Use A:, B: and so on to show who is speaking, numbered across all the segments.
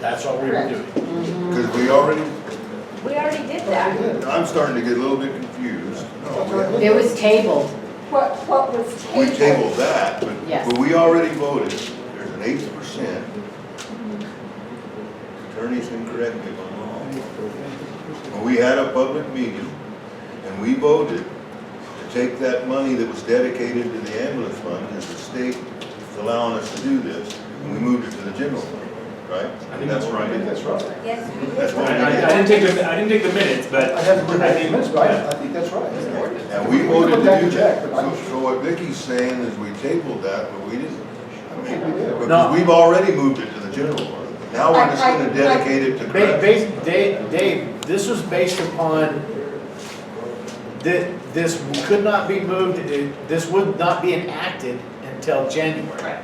A: That's what we were doing.
B: Because we already,
C: We already did that.
B: I'm starting to get a little bit confused.
D: It was tabled,
C: What, what was
B: We
C: tabled?
B: tabled that, but,
D: Yes.
B: but we already voted, there's an eight percent. Attorneys can correct me if I'm wrong. When We had a public meeting, and we voted to take that money that was dedicated to the ambulance fund, as the state is allowing us to do this, and we moved it to the general fund, right?
E: I think that's
B: what we did.
E: right.
A: That's right.
C: Yes, we
B: That's
C: did.
B: what
E: I,
B: we
E: I
B: did.
E: I didn't take the, I didn't take the minutes, but.
A: I haven't read
E: I
A: that
E: think-
A: minutes, but I, I think that's right.
B: And we voted to do that. So so what Vicky's saying is we tabled that, but we didn't. I mean, Because we've already moved it to the general fund. Now we're just gonna dedicate it to
F: Ba-
B: correct.
F: bas- Dave, Dave, this was based upon, thi- this could not be moved, it- this would not be enacted until January.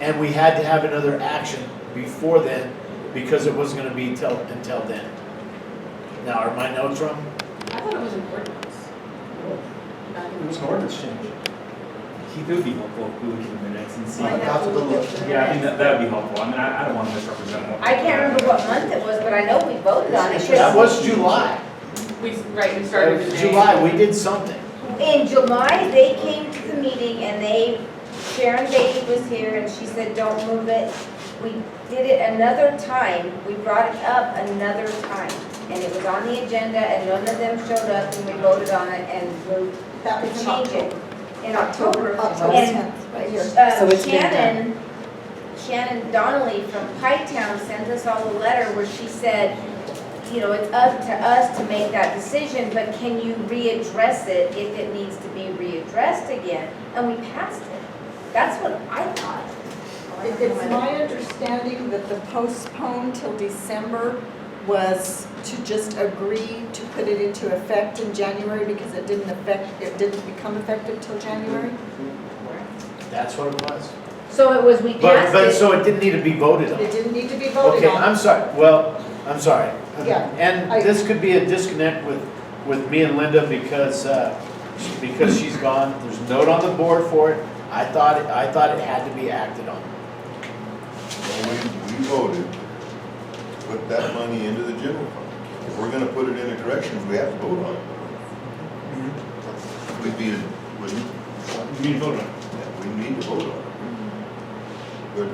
F: And we had to have another action before then, because it wasn't gonna be till, until then. Now, are my notes wrong?
G: I thought it was an ordinance.
A: It was an ordinance change.
E: Keith, it would be helpful if we looked at the minutes and see.
C: I'd
E: Yeah,
C: have to look at the
E: I think
C: minutes.
E: that, that would be helpful. I mean, I, I don't want to misrepresent what.
C: I can't remember what month it was, but I know we voted on it.
F: That was July.
G: We, right, we
F: That
G: started in
F: was
G: May.
F: uh, July, we did something.
C: In July, they came to the meeting and they, Sharon Beatty was here and she said, don't move it. We did it another time, we brought it up another time. And it was on the agenda and none of them showed up and we voted on it and moved
H: That
C: to
H: was in
C: change it
H: October.
C: in October.
H: October
C: And
H: 10th, right here.
D: So
C: Uh,
D: it's been done.
C: Shannon, Shannon Donnelly from Pie Town sent us all a letter where she said, you know, it's up to us to make that decision, but can you readdress it if it needs to be readdressed again? And we passed it. That's what I thought.
H: It- It's my understanding that the postpone till December was to just agree to put it into effect in January because it didn't affect, it didn't become effective till January.
F: That's what it was.
C: So it was, we
F: But,
C: passed
F: but,
C: it.
F: so it didn't need to be voted on.
H: It didn't need to be voted
F: Okay,
H: on.
F: I'm sorry, well, I'm sorry.
H: Yeah,
F: And
H: I-
F: this could be a disconnect with, with me and Linda because, uh, because she's gone, there's a note on the board for it. I thought, it- I thought it had to be acted on.
B: So We, we voted to put that money into the general fund. If we're gonna put it into corrections, we have to vote on it. We'd be, we,
E: You need to vote on it.
B: we need to vote on it. But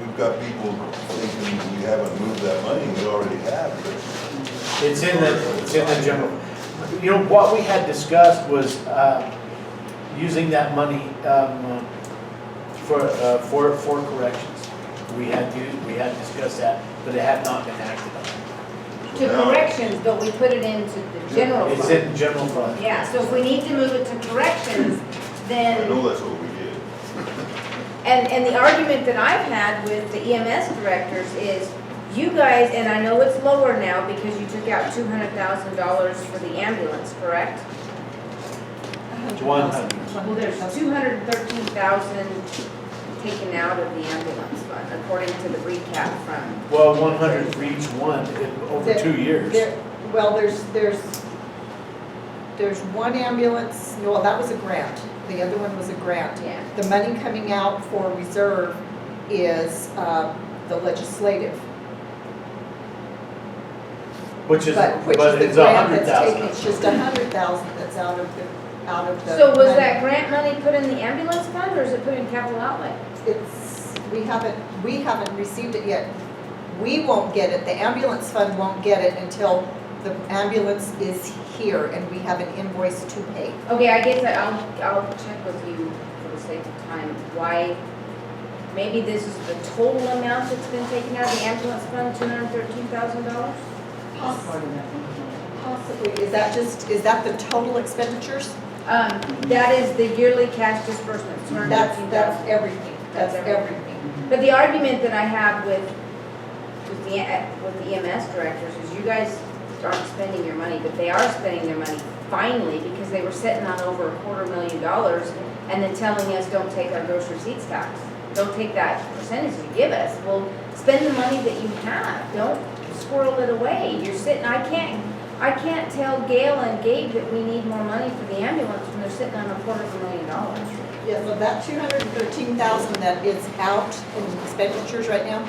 B: we've got people thinking we haven't moved that money, we already have, but
F: It's in the, it's in the general. You know, what we had discussed was, uh, using that money, um, for, uh, for, for corrections. We had to, we had discussed that, but it had not been acted on.
C: To corrections, but we put it into the general
F: It's
C: fund.
F: in general fund.
C: Yeah, so if we need to move it to corrections,
B: I
C: then.
B: know that's what we did.
C: And, and the argument that I've had with the EMS directors is, you guys, and I know it's lower now because you took out two hundred thousand dollars for the ambulance, correct?
H: Uh-huh.
F: One hundred.
C: Well, there's two hundred and thirteen thousand taken out of the ambulance fund, according to the recap from,
F: Well, one hundred for each one in over
H: There-
F: two years.
H: There- Well, there's, there's, there's one ambulance, no, that was a grant. The other one was a grant.
C: yeah.
H: The money coming out for reserve is uh, the legislative.
F: Which is,
H: But which
F: but
H: is
F: it's
H: the
F: a
H: grant
F: hundred
H: that's taken,
F: thousand.
H: it's just a hundred thousand that's out of the, out of the.
C: So was
H: money.
C: that grant money put in the ambulance fund or is it put in capital outlay?
H: It's, we haven't, we haven't received it yet. We won't get it, the ambulance fund won't get it until the ambulance is here and we have an invoice to pay.
C: Okay, I guess I- I'll, I'll check with you for the sake of time, why, maybe this is the total amount that's been taken out of the ambulance fund, two hundred and thirteen thousand dollars?
H: Possibly, is that just, is that the total expenditures?
C: Um, that is the yearly cash disbursement, two hundred and
H: That's,
C: thirteen thousand.
H: that's everything, that's everything.
C: But the argument that I have with, with the, with the EMS directors is you guys aren't spending your money, but they are spending their money finally, because they were sitting on over a quarter million dollars and then telling us, don't take our gross receipts tax, don't take that percentage you give us. Well, spend the money that you have, don't squirrel it away, you're sitting, I can't, I can't tell Gail and Gabe that we need more money for the ambulance when they're sitting on a quarter of a million dollars.
H: Yeah, so that two hundred and thirteen thousand that is out in expenditures right now,